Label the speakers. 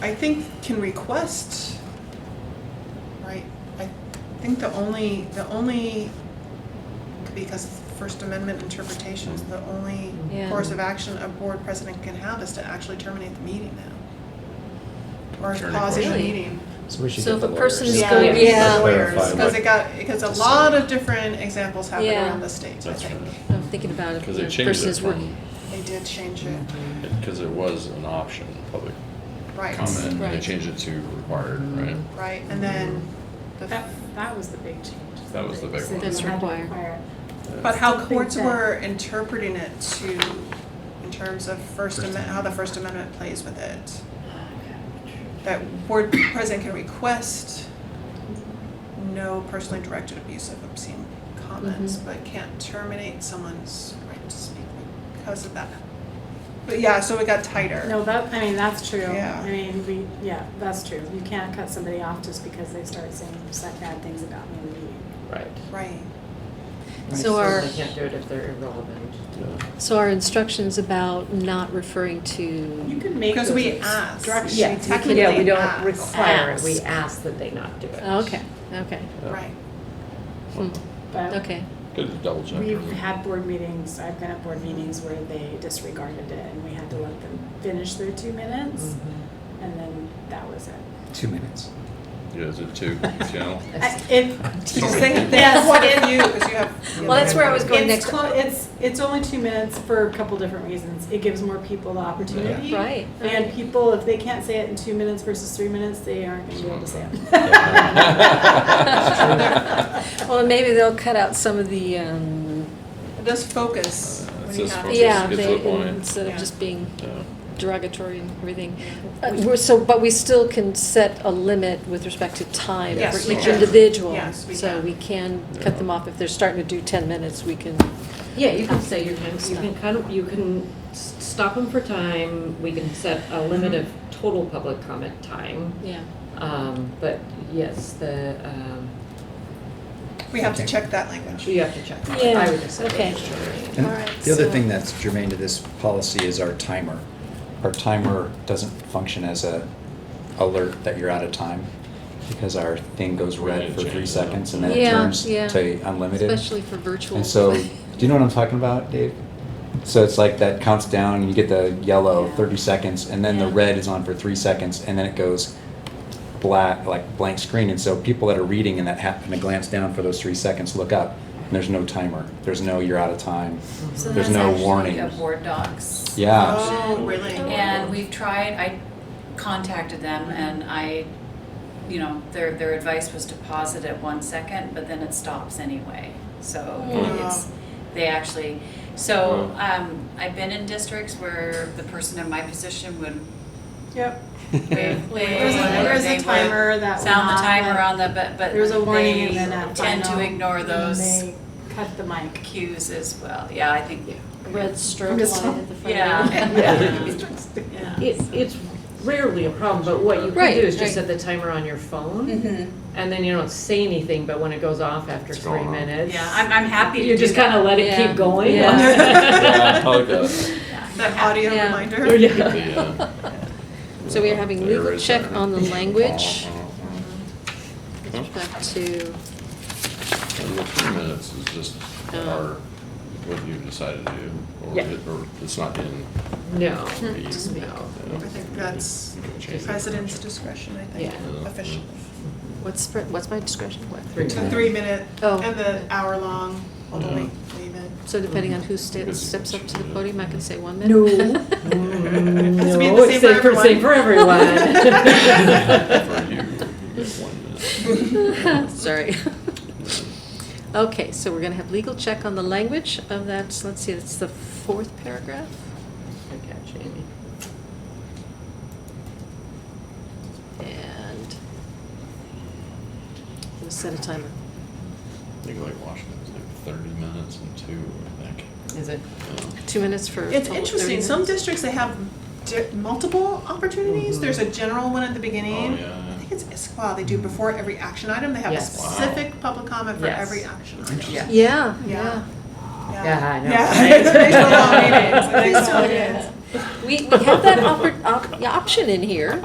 Speaker 1: I think can request, right? I think the only, the only, because First Amendment interpretation is the only
Speaker 2: Yeah.
Speaker 1: course of action a board president can have is to actually terminate the meeting now. Or
Speaker 3: Attorney
Speaker 1: pause the
Speaker 2: question.
Speaker 1: meeting.
Speaker 4: So we should
Speaker 2: So
Speaker 4: get
Speaker 2: if
Speaker 4: the
Speaker 2: a
Speaker 4: lawyers.
Speaker 2: person is
Speaker 5: Yeah. going-
Speaker 2: Yeah.
Speaker 1: Lawyers,
Speaker 3: Clarify
Speaker 1: because
Speaker 3: what-
Speaker 1: it got, because a
Speaker 3: Decide.
Speaker 1: lot of different examples happen
Speaker 2: Yeah.
Speaker 1: around the state, I
Speaker 3: That's
Speaker 1: think.
Speaker 3: right.
Speaker 2: I'm thinking about it.
Speaker 3: Because they
Speaker 2: the
Speaker 3: changed
Speaker 2: person
Speaker 3: it
Speaker 2: is work-
Speaker 3: from,
Speaker 1: They did change it,
Speaker 3: because it was an option, public
Speaker 1: right,
Speaker 3: comment, and they
Speaker 2: Right.
Speaker 3: changed it to required, right?
Speaker 1: right, and then the
Speaker 5: That, that was the big change.
Speaker 3: That was the big
Speaker 5: So
Speaker 3: one.
Speaker 5: they
Speaker 2: That's
Speaker 5: had to
Speaker 2: required.
Speaker 5: require-
Speaker 1: But how
Speaker 5: Something
Speaker 1: courts
Speaker 5: that-
Speaker 1: were interpreting it to, in terms of First Amendment, how the First Amendment plays with it. That board president can request no personally directed abuse of obscene comments, but can't terminate someone's right to speak because of that. But yeah, so it got tighter.
Speaker 5: No, that, I mean, that's true.
Speaker 1: Yeah.
Speaker 5: I mean, we, yeah, that's true. You can't cut somebody off just because they start saying such bad things about me in the meeting.
Speaker 6: Right.
Speaker 1: Right,
Speaker 6: Right,
Speaker 2: So our-
Speaker 6: They can't do it if they're irrelevant.
Speaker 2: So our instructions about not referring to,
Speaker 5: You can make
Speaker 1: because
Speaker 5: those
Speaker 1: we
Speaker 5: instructions.
Speaker 1: asked,
Speaker 6: Yes,
Speaker 1: she
Speaker 6: we can-
Speaker 1: technically
Speaker 6: yeah, we
Speaker 1: asked.
Speaker 6: don't require it, we
Speaker 2: Ask.
Speaker 6: ask Oh, that they not do it.
Speaker 2: Oh, okay, okay,
Speaker 1: Right,
Speaker 2: hmm,
Speaker 5: But
Speaker 2: okay.
Speaker 3: Good to double check.
Speaker 5: We've had board meetings, I've been at board meetings where they disregarded it and we had to let them finish their two minutes
Speaker 3: Mm.
Speaker 6: Mm-hmm.
Speaker 5: and then that was it.
Speaker 4: Two minutes.
Speaker 3: Yeah, is it two, channel?
Speaker 5: I- It,
Speaker 1: she's saying that
Speaker 5: Yes.
Speaker 1: point of view, because you have.
Speaker 2: Well, that's where I was going next.
Speaker 5: it's, clo- it's, it's only two minutes for a couple different reasons. It gives more people the opportunity.
Speaker 2: Right.
Speaker 5: And people, if they can't say it in two minutes versus three minutes, they aren't gonna be able to say it.
Speaker 2: Well, maybe they'll cut out some of the, um,
Speaker 1: It does focus
Speaker 3: Uh, it
Speaker 1: when you
Speaker 3: says
Speaker 1: have.
Speaker 3: focus.
Speaker 2: yeah,
Speaker 3: gets
Speaker 2: they,
Speaker 3: to the point.
Speaker 2: instead of
Speaker 1: Yeah.
Speaker 2: just being
Speaker 3: Yeah.
Speaker 2: derogatory and everything. Uh, we're, so, but we still can set a limit with respect to time
Speaker 1: Yes,
Speaker 2: for
Speaker 1: we
Speaker 2: each
Speaker 1: can.
Speaker 2: individual.
Speaker 1: Yes, we
Speaker 2: So
Speaker 1: can.
Speaker 2: we can cut them off, if they're starting to do ten minutes, we can,
Speaker 6: Yeah, you can say your time, you can kind of, you can s- stop them for time, we can set a limit of total public comment time.
Speaker 2: yeah.
Speaker 6: Um, but yes, the, um,
Speaker 1: We have to check that language.
Speaker 6: you have to check. that.
Speaker 2: Yeah,
Speaker 6: I would just say.
Speaker 2: okay.
Speaker 4: And
Speaker 1: All right,
Speaker 4: the other
Speaker 1: so-
Speaker 4: thing that's germane to this policy is our timer. Our timer doesn't function as a alert that you're out of time because our thing goes
Speaker 3: We need
Speaker 4: red
Speaker 3: to
Speaker 4: for three
Speaker 3: change that.
Speaker 4: seconds and then it
Speaker 2: Yeah,
Speaker 4: turns
Speaker 2: yeah.
Speaker 4: to unlimited.
Speaker 2: Especially for virtual.
Speaker 4: And so, do you know what I'm talking about, Dave? So it's like that counts down, and you get the yellow
Speaker 5: Yeah.
Speaker 4: 30 seconds, and then the
Speaker 2: Yeah.
Speaker 4: red is on for three seconds, and then it goes black, like blank screen. And so people that are reading and that happen to glance down for those three seconds look up, and there's no timer. There's no you're out of time.
Speaker 7: So
Speaker 4: There's
Speaker 7: that's
Speaker 4: no
Speaker 7: actually
Speaker 4: warning.
Speaker 7: a board docs.
Speaker 4: Yeah.
Speaker 1: Oh, really?
Speaker 7: And we've tried, I contacted them and I, you know, their, their advice was to pause it at one second, but then it stops anyway. So
Speaker 1: Yeah.
Speaker 7: it's, they actually, so
Speaker 3: Wow.
Speaker 7: um, I've been in districts where the person in my position would
Speaker 5: Yep,
Speaker 7: wave, wave.
Speaker 5: there's a, there's
Speaker 7: they
Speaker 5: a
Speaker 7: would
Speaker 5: timer that went
Speaker 7: Sound the
Speaker 5: off,
Speaker 7: timer
Speaker 5: and
Speaker 7: on the, but, but
Speaker 5: There was a warning
Speaker 7: they
Speaker 5: and then at
Speaker 7: tend to
Speaker 5: final,
Speaker 7: ignore
Speaker 5: and
Speaker 7: those
Speaker 5: they Cut the mic.
Speaker 7: cues as well. Yeah, I think,
Speaker 2: Red strobe
Speaker 5: I'm just-
Speaker 2: light at the front.
Speaker 7: yeah.
Speaker 6: Yeah.
Speaker 7: Yeah.
Speaker 6: It's, it's rarely a problem, but what you can
Speaker 2: Right,
Speaker 6: do is just
Speaker 2: right.
Speaker 6: set the timer on your phone,
Speaker 5: mm-hmm.
Speaker 7: Mhm.
Speaker 6: and then you don't say anything, but when it goes off after
Speaker 3: It's
Speaker 6: three
Speaker 3: going on.
Speaker 6: minutes.
Speaker 7: Yeah, I'm, I'm happy to
Speaker 6: You just
Speaker 7: do that.
Speaker 6: kind of let it
Speaker 2: Yeah.
Speaker 6: keep going.
Speaker 3: Yeah,
Speaker 1: Yeah.
Speaker 3: I like that.
Speaker 1: That audio
Speaker 2: Yeah.
Speaker 1: reminder.
Speaker 6: Yeah.
Speaker 3: The, uh,
Speaker 2: So we are having
Speaker 3: there
Speaker 2: legal
Speaker 3: is
Speaker 2: check
Speaker 3: that.
Speaker 2: on the
Speaker 3: Uh,
Speaker 2: language with
Speaker 3: Huh?
Speaker 2: respect to,
Speaker 3: And the uh. three minutes is just
Speaker 2: Uh.
Speaker 3: our, what you decided to do, or
Speaker 6: Yeah.
Speaker 3: it- or it's not in.
Speaker 6: No.
Speaker 3: the-
Speaker 6: Just make-
Speaker 3: Yeah.
Speaker 1: I think that's
Speaker 3: You can change it.
Speaker 1: president's discretion, I think,
Speaker 3: Yeah.
Speaker 1: officially.
Speaker 2: what's, for- what's my discretion, what?
Speaker 6: Three
Speaker 1: The
Speaker 6: minutes.
Speaker 1: three minute
Speaker 2: Oh.
Speaker 1: and the hour long, although we leave it.
Speaker 2: So depending on who sta-
Speaker 3: Because-
Speaker 2: steps up to the podium, I can say one minute?
Speaker 1: It has to be
Speaker 6: Mm, No,
Speaker 1: the
Speaker 6: it's
Speaker 1: same for
Speaker 6: safe same for everyone.
Speaker 3: For you, you get one minute.
Speaker 2: Sorry. Okay, so we're gonna have legal check on the language of that, let's see, it's the fourth paragraph?
Speaker 6: Good catch, Amy.
Speaker 2: And we'll set a timer.
Speaker 3: I think like Washington was like thirty minutes and two, I think.
Speaker 6: Is it?
Speaker 3: Yeah.
Speaker 2: Two minutes for.
Speaker 1: It's
Speaker 2: public,
Speaker 1: interesting,
Speaker 2: 30
Speaker 1: some
Speaker 2: minutes.
Speaker 1: districts, they have di- multiple opportunities, there's a general one at the beginning.
Speaker 3: Mm-hmm. Oh, yeah.
Speaker 1: I think it's Issaquah, they do before every action item, they have a
Speaker 6: Yes.
Speaker 3: Wow.
Speaker 1: specific public comment for
Speaker 6: Yes.
Speaker 1: every action item.
Speaker 3: Interesting.
Speaker 6: Yeah.
Speaker 2: Yeah, yeah.
Speaker 1: Yeah.
Speaker 6: Yeah, I know.
Speaker 1: Yeah, it's based on long meetings, it's based on long meetings.
Speaker 2: We, we have that oppor- op- option in here.